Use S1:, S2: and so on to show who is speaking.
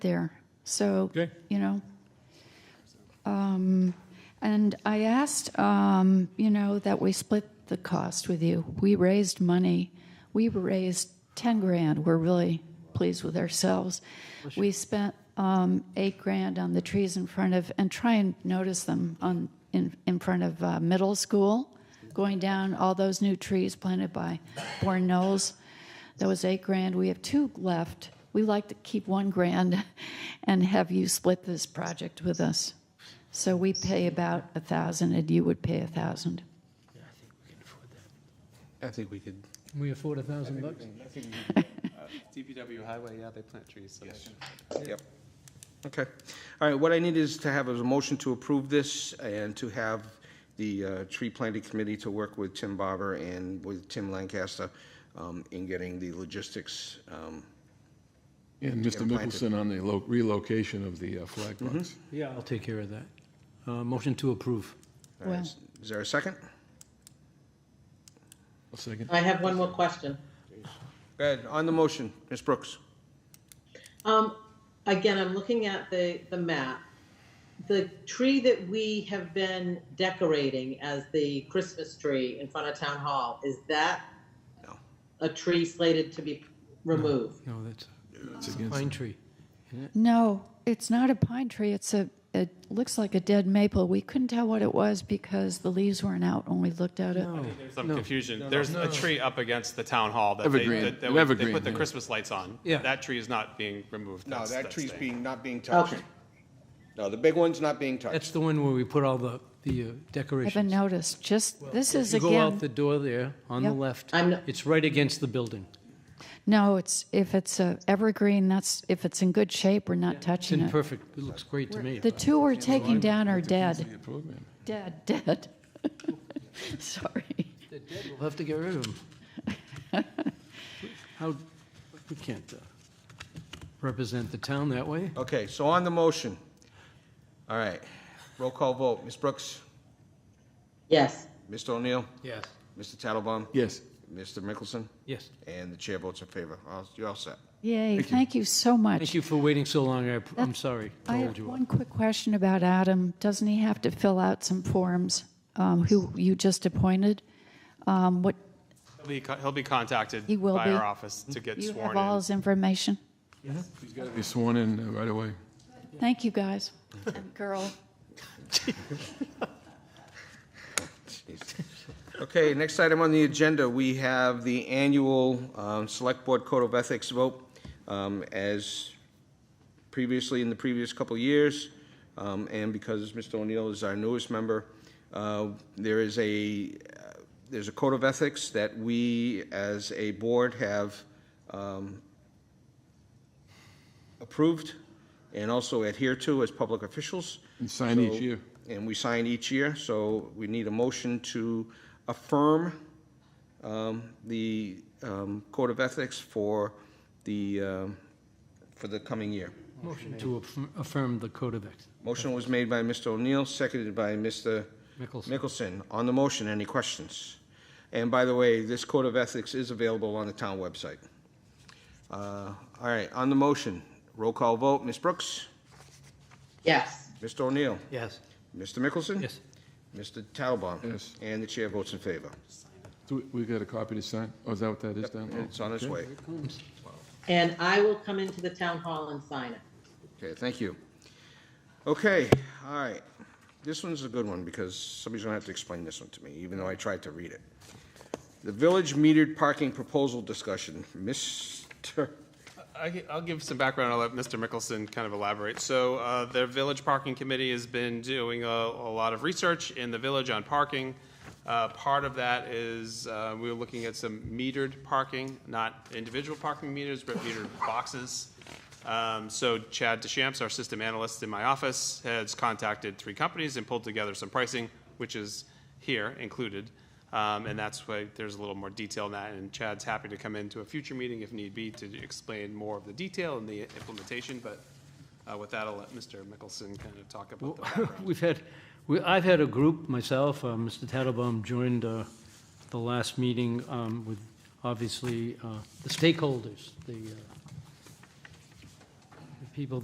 S1: there. So,
S2: Okay.
S1: you know. Um, and I asked, um, you know, that we split the cost with you. We raised money. We raised 10 grand. We're really pleased with ourselves. We spent um, eight grand on the trees in front of, and try and notice them on in, in front of uh, middle school, going down all those new trees planted by Bourne Knowles. That was eight grand. We have two left. We like to keep one grand and have you split this project with us. So we pay about a thousand and you would pay a thousand.
S2: I think we could.
S3: Can we afford a thousand bucks?
S4: DPW highway, yeah, they plant trees, so they should.
S5: Yep. Okay. All right, what I need is to have a motion to approve this and to have the uh, tree planting committee to work with Tim Barber and with Tim Lancaster um, in getting the logistics. um,
S6: And Mr.
S5: planted. Mm-hmm.
S6: Mickelson on the lo- relocation of the uh, flag box.
S3: Yeah, I'll take care of that. Uh, motion to approve.
S5: all right,
S1: Well-
S5: is- Is there a second?
S6: A second.
S7: I have one more question.
S5: Go ahead. On the motion, Ms. Brooks.
S7: Um, again, I'm looking at the, the map. The tree that we have been decorating as the Christmas tree in front of town hall, is that
S5: No.
S7: a tree slated to be removed?
S3: No, that's
S6: It's
S3: a
S6: against
S3: pine tree.
S1: No, it's not a pine tree. It's a, it looks like a dead maple. We couldn't tell what it was because the leaves weren't out when we looked at it.
S3: No,
S4: There's some
S3: no.
S4: confusion. There's a tree up against the town hall that they,
S6: Evergreen.
S4: that- that
S6: An
S4: we- they
S6: evergreen,
S4: put the
S6: yeah.
S4: Christmas lights on.
S3: Yeah.
S4: That tree is not being removed.
S5: No,
S4: That's-
S5: that
S4: that's
S5: tree's
S4: staying.
S5: being, not being touched.
S7: Okay,
S5: No, the big one's not being
S3: That's
S5: touched.
S3: the one where we put all the, the uh,
S1: I
S3: decorations.
S1: haven't noticed. Just, this is
S3: You go out
S1: again,
S3: the door there, on the
S1: Yep.
S3: left.
S7: I'm not-
S3: It's right against the building.
S1: no, it's, if it's a evergreen, that's, if it's in good shape, we're not
S3: It's
S1: touching
S3: in
S1: it.
S3: perfect, it looks great to me.
S1: The two we're taking down are
S6: the
S1: dead,
S6: program.
S1: dead, dead. Sorry.
S3: They're dead, We'll have to get rid of them. How, we can't uh, represent the town that way.
S5: Okay, so on the motion. All right, roll call vote. Ms. Brooks,
S7: yes.
S5: Mr. O'Neill,
S3: Yes.
S5: Mr. Tattlebaum,
S6: Yes.
S5: Mr. Mickelson,
S3: Yes.
S5: and the chair votes in favor. All- You're all set.
S1: Yay, thank you so much.
S3: Thank you for waiting so long. I, I'm sorry to
S1: I
S3: hold
S1: have
S3: you up.
S1: one quick question about Adam. Doesn't he have to fill out some forms, um, who you just appointed? Um, What,
S4: He'll be, co- he'll be contacted
S1: He will
S4: by
S1: be.
S4: our office to get
S1: you
S4: sworn
S1: have all
S4: in.
S1: his information?
S6: He's got to be sworn in uh, right away.
S1: Thank you, guys and girl.
S5: Okay, next item on the agenda, we have the annual um, Select Board Code of Ethics vote. Um, As previously, in the previous couple of years, um, and because Mr. O'Neill is our newest member, uh, there is a, uh, there's a code of ethics that we, as a board, have um, approved and also adhere to as public officials.
S6: And sign each
S5: So-
S6: year.
S5: And we sign each year, so we need a motion to affirm um, the um, Code of Ethics for the, um, for the coming year.
S3: Motion to affirm- affirm the code of ethics.
S5: Motion was made by Mr. O'Neill, seconded by Mr.
S3: Mickelson.
S5: Mickelson. On the motion, any questions? And by the way, this Code of Ethics is available on the town website. Uh, All right, on the motion, roll call vote, Ms. Brooks?
S7: Yes.
S5: Mr. O'Neill?
S3: Yes.
S5: Mr. Mickelson?
S3: Yes.
S5: Mr. Tattlebaum?
S6: Yes.
S5: And the chair votes in favor.
S6: So we got a copy to sign? Oh, is that what that is down there?
S5: It's on its way.
S7: And I will come into the town hall and sign it.
S5: Okay, thank you. Okay, all right. This one's a good one because somebody's gonna have to explain this one to me, even though I tried to read it. The village metered parking proposal discussion, Mr.
S4: I, gi- I'll give some background. I'll let Mr. Mickelson kind of elaborate. So uh, the Village Parking Committee has been doing a, a lot of research in the village on parking. Uh, part of that is uh, we were looking at some metered parking, not individual parking meters, but metered boxes. Um, so Chad Deschamps, our system analyst in my office, has contacted three companies and pulled together some pricing, which is here included. Um, and that's why there's a little more detail in that, and Chad's happy to come into a future meeting if need be to explain more of the detail and the implementation, but, uh, with that, I'll let Mr. Mickelson kind of talk about the background.
S3: We've had, we, I've had a group myself, uh, Mr. Tattlebaum joined, uh, the last meeting, um, with obviously, uh, the stakeholders, the, uh, the people